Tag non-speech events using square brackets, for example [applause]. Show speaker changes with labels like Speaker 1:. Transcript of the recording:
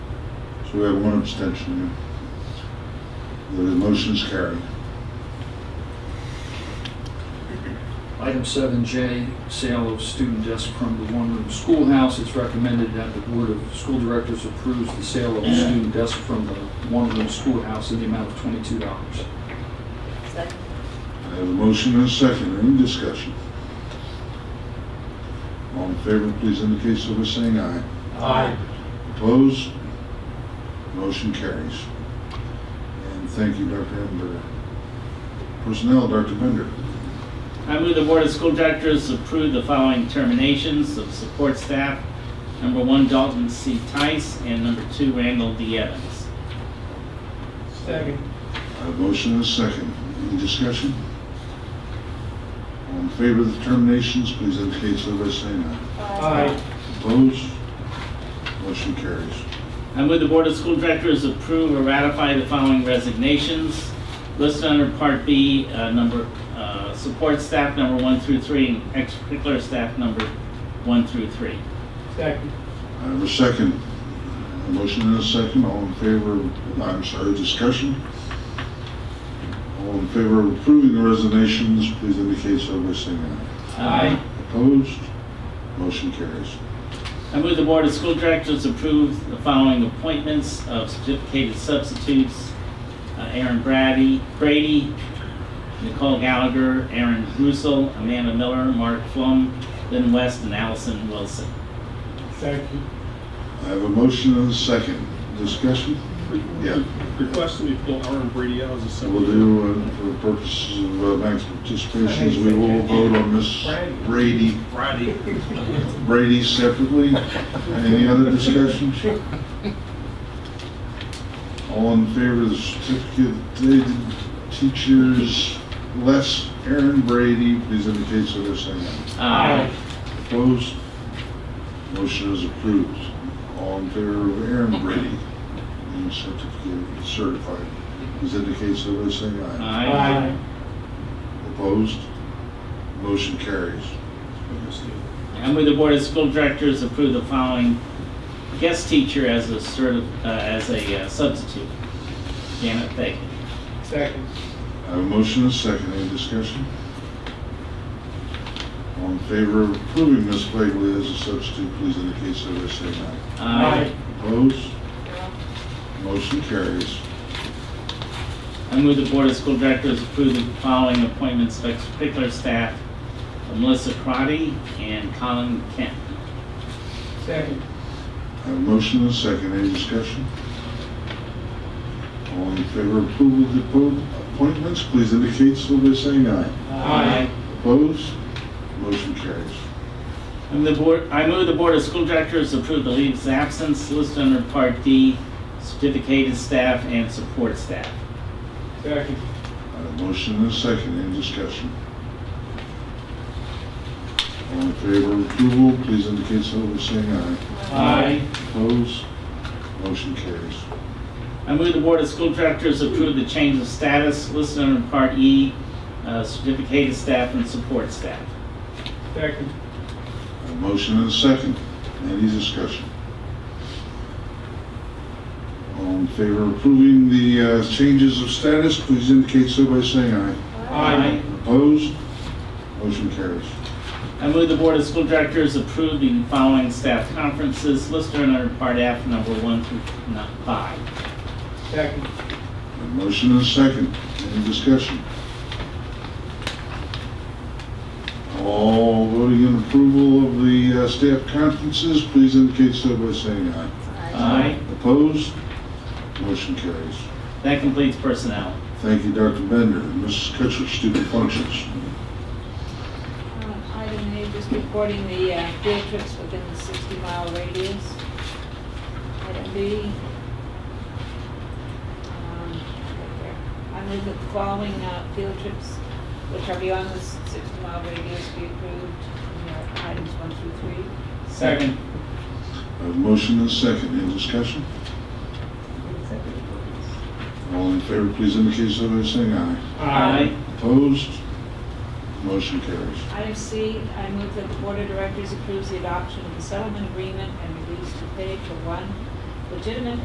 Speaker 1: So we have one abstention. yeah. The motion's carried.
Speaker 2: Item 7J, sale of student desk from the one-room schoolhouse. It's recommended that the Board of School Directors approves the sale of a student desk from the one-room schoolhouse in the amount of $22.
Speaker 3: Second.
Speaker 1: I have a motion and a second, any discussion? All in favor, please indicate so by saying aye.
Speaker 4: Aye.
Speaker 1: Opposed? Motion carries. And thank you, Dr. Ember. Personnel, Dr. Bender.
Speaker 5: I move the Board of School Directors approve the following terminations of support staff. Number one, Dalton C. Tice, and number two, Randall D. Evans.
Speaker 4: Second.
Speaker 1: I have a motion and a second, any discussion? All in favor of the terminations, please indicate so by saying aye.
Speaker 4: Aye.
Speaker 1: Opposed? Motion carries.
Speaker 5: I move the Board of School Directors approve or ratify the following resignations listed under Part B, uh, number, uh, support staff number one through three, and extracurricular staff number one through three.
Speaker 4: Second.
Speaker 1: I have a second. A motion and a second, all in favor, I'm sorry, discussion? All in favor of approving the resignations, please indicate so by saying aye.
Speaker 4: Aye.
Speaker 1: Opposed? Motion carries.
Speaker 5: I move the Board of School Directors approve the following appointments of certificated substitutes. uh, Aaron Brady, Brady, Nicole Gallagher, Aaron Russell, Amanda Miller, Mark Flum, Lynn West, and Allison Wilson.
Speaker 4: Second.
Speaker 1: I have a motion and a second, discussion? Yeah,
Speaker 6: Requesting we pull Aaron Brady out as a
Speaker 1: so we'll
Speaker 6: separate.
Speaker 1: do, uh, for purposes of uh, max participations, we will vote on Miss Brady,
Speaker 6: Brady.
Speaker 1: [laughs] Brady separately. Any other discussions? All in favor of the certificate teachers, less Aaron Brady, please indicate so by saying aye.
Speaker 5: Aye.
Speaker 1: Opposed? Motion is approved. All in favor of Aaron Brady, being certificated, certified, please indicate so by saying aye.
Speaker 5: Aye.
Speaker 1: Opposed? Motion carries.
Speaker 5: I move the Board of School Directors approve the following guest teacher as a certi, uh, as a uh, substitute. Janet Fagan.
Speaker 4: Second.
Speaker 1: I have a motion and a second. Any discussion? All in favor of approving Ms. Blakely as a substitute, please indicate so by saying aye. Opposed? Motion carries.
Speaker 5: I move the Board of School Directors approve the following appointments of extracurricular staff, Melissa Crotty and Colin Kent.
Speaker 4: Second.
Speaker 1: I have a motion and a second. Any discussion? All in favor of approval of the appo- appointments, please indicate so by saying aye. Opposed? Motion carries.
Speaker 5: I move the Board, I move the Board of School Directors approve the leaves of absence listed under Part D, certificated staff and support staff.
Speaker 4: Second.
Speaker 1: I have a motion and a second. Any discussion? All in favor of approval, please indicate so by saying aye. Opposed? Motion carries.
Speaker 5: I move the Board of School Directors approve the change of status listed under Part E, uh, certificated staff and support staff.
Speaker 4: Second.
Speaker 1: A motion and a second. Any discussion? All in favor of approving the uh, changes of status, please indicate so by saying aye.
Speaker 4: Aye.
Speaker 1: Opposed? Motion carries.
Speaker 5: I move the Board of School Directors approve the following staff conferences listed under Part F, number one through n- five.
Speaker 4: Second.
Speaker 1: A motion and a second. Any discussion? All voting in approval of the uh, staff conferences, please indicate so by saying aye.
Speaker 5: Aye.
Speaker 1: Opposed? Motion carries.
Speaker 5: That completes personnel.
Speaker 1: Thank you, Dr. Bender. Mrs. Kutcher, student functions.
Speaker 3: Uh, Item A, just reporting the uh, field trips within the 60-mile radius. Item B. um, right there. I move that the following uh, field trips, which are beyond the 60-mile radius, be approved. And there are Items one through three.
Speaker 5: Second.
Speaker 1: I have a Uh, motion and a second. Any discussion? All in favor, please indicate so by saying aye. Opposed? Motion carries.
Speaker 3: Item C, I move that the Board of Directors approves the adoption of the settlement agreement and release to pay for one legitimate